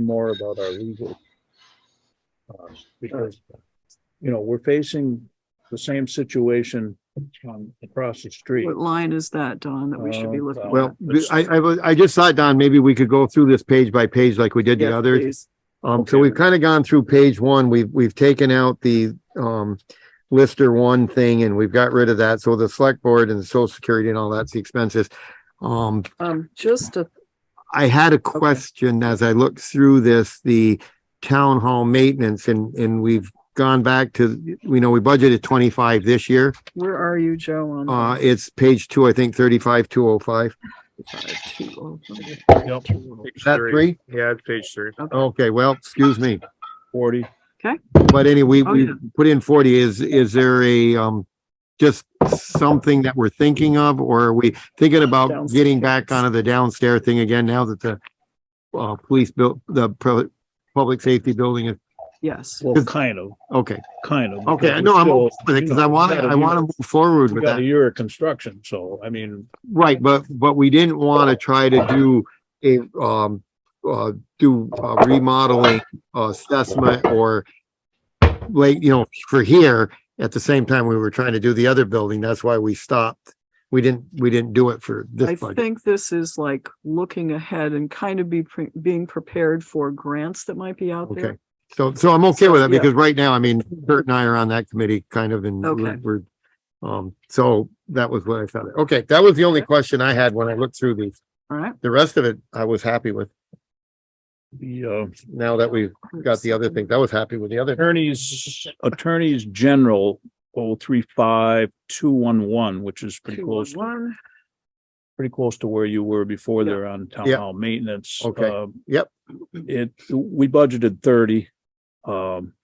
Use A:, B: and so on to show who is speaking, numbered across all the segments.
A: more about our legal. uh, Because, you know, we're facing the same situation on, across the street.
B: What line is that, Don, that we should be
A: Uh,
B: looking at?
A: Well,
C: Well,
A: it's-
C: I, I, was- I just thought, Don, maybe we could go through this page by page like we did the
B: Yes,
C: others.
B: please.
C: Um, so
A: Okay.
C: we've kind of gone through page one. We've, we've taken out the, um, Lister one thing and we've got rid of that. So the select board and the social security and all that's the expenses. Um,
B: Um, just a,
C: I had a question as I looked through this, the town hall maintenance and, and we've gone back to, we know we budgeted twenty-five this year.
B: where are you, Joe, on?
C: Uh, it's page two, I think, thirty-five, two oh five.
B: five, two, oh, five,
A: Yep.
B: two, oh.
C: Is that three?
D: Yeah, it's page three.
C: Okay, well, excuse me.
A: Forty,
C: But anyway,
B: Oh,
C: we
B: yeah.
C: put in forty. Is, is there a, um, just something that we're thinking of, or are we thinking about getting back onto the downstairs thing again now that the uh, police built, the pro- public safety building is,
B: Yes,
A: well, kind of,
C: okay,
A: kind of.
C: okay,
A: because
C: no, I'm
A: we're
C: okay
A: still,
C: with
A: you
C: it, because
A: know,
C: I want,
A: we got a
C: I
A: year-
C: want to move forward
A: We
C: with
A: got a
C: that.
A: year of construction, so, I mean,
C: Right, but, but we didn't want to try to do a, um, uh, do a remodeling uh, assessment or like, you know, for here, at the same time we were trying to do the other building, that's why we stopped. We didn't, we didn't do it for
B: I
C: this budget.
B: think this is like looking ahead and kind of be, pre- being prepared for grants that might be out
C: Okay,
B: there.
C: so, so I'm okay with that
B: Yeah.
C: because right now, I mean, Kurt and I are on that committee kind of and we're,
B: Okay.
C: we're- um, so that was what I thought. Okay, that was the only question I had when I looked through these.
B: All right.
C: The rest of it, I was happy with.
A: the, uh,
C: Now that we've got the other thing. I was happy with the other.
A: attorneys, attorneys general, oh, three, five, two, one, one, which is pretty
B: Two,
A: close.
B: one, one.
A: pretty close to where you were before there on town
C: Yeah.
A: hall maintenance.
C: Okay.
A: Um,
C: Yep.
A: It, we budgeted thirty. Um.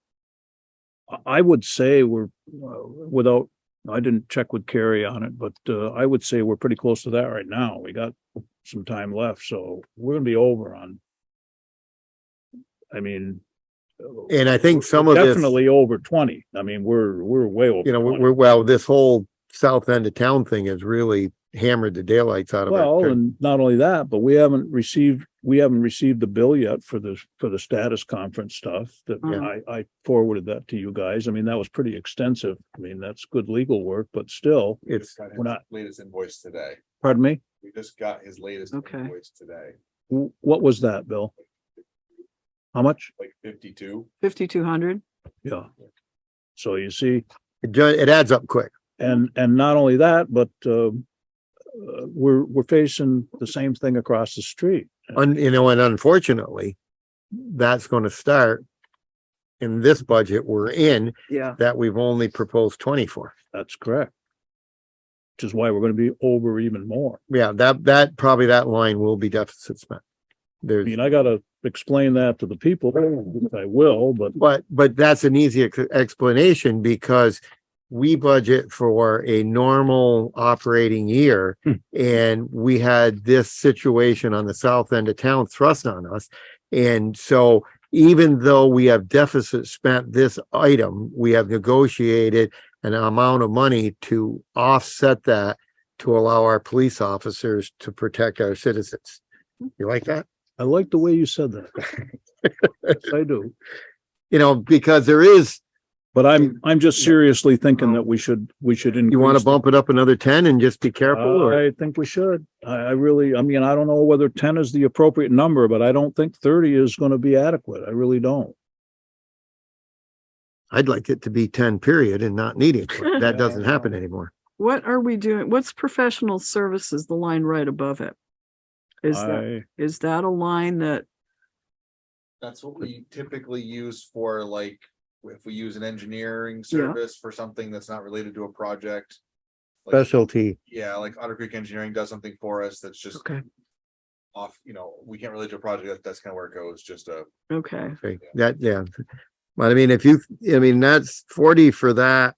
A: I- I would say we're, uh, without, I didn't check with Carrie on it, but uh, I would say we're pretty close to that right now. We got some time left, so we're gonna be over on. I mean. uh,
C: And I think some
A: we're
C: of this, you
A: Definitely over twenty. I mean, we're, we're way over.
C: know,
A: 20.
C: we're, well, this whole south end of town thing has really hammered the daylights out of
A: Well,
C: it.
A: and not only that, but we haven't received, we haven't received the bill yet for the, for the status conference stuff that
B: Yeah.
A: I, I forwarded that to you guys. I mean, that was pretty extensive. I mean, that's good legal work, but still,
E: We
C: It's,
E: just got his
A: we're not-
E: Latest invoice today.
A: pardon me,
E: We just got his latest
B: Okay.
E: invoice today,
A: wh- what was that, Bill? How much?
E: like fifty-two.
B: Fifty-two hundred.
A: Yeah. So you see,
C: it ju- it adds up quick.
A: and, and not only that, but, um, uh, we're, we're facing the same thing across the street.
C: Un, you know, and unfortunately, that's going to start in this budget we're in
B: Yeah,
C: that we've only proposed twenty for.
A: That's correct. Which is why we're gonna be over even more.
C: Yeah, that, that, probably that line will be deficit spent.
A: I
C: There's,
A: mean, I gotta explain that to the people, which I will, but
C: But, but that's an easy ex- explanation because we budget for a normal operating year.
A: Hmm.
C: And we had this situation on the south end of town thrust on us. And so even though we have deficit spent this item, we have negotiated an amount of money to offset that to allow our police officers to protect our citizens. You like that?
A: I like the way you said that. Yes, I do,
C: You know, because there is
A: but I'm, I'm just seriously thinking that we should, we should.
C: You want
A: increase
C: to bump it up another ten and just be
A: the-
C: careful or,
A: I think we should. I, I really, I mean, I don't know whether ten is the appropriate number, but I don't think thirty is gonna be adequate. I really don't.
C: I'd like it to be ten period and not needed. but That doesn't happen anymore.
B: what are we doing? What's professional services, the line right above it? Is that,
A: I,
B: is that a line that,
E: That's what we typically use for like, if we use an engineering service for something that's not related to a project. like-
C: Specialty.
E: Yeah, like Otter Creek Engineering does something for us that's just
B: okay,
E: off, you know, we can't relate to a project, that- that's kind of where it goes, just a.
B: okay.
C: Okay, That, yeah. But I mean, if you, I mean, that's forty for that.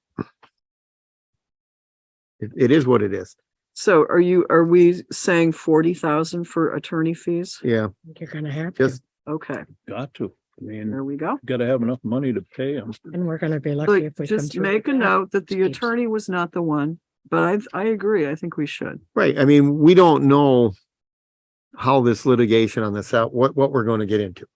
C: It, it is what it is.
B: So are you, are we saying forty thousand for attorney fees?
C: Yeah.
F: You're gonna have
C: Just-
F: to,
B: Okay,
A: got to, I mean,
B: there we go.
A: gotta have enough money to pay them.
F: and we're gonna be lucky
B: Like,
F: if we come
B: just
F: through.
B: make a
F: with that.
B: note that the
F: Steve.
B: attorney was not the one, but I, I agree. I think we should.
C: Right. I mean, we don't know how this litigation on this out, what, what we're going to get into.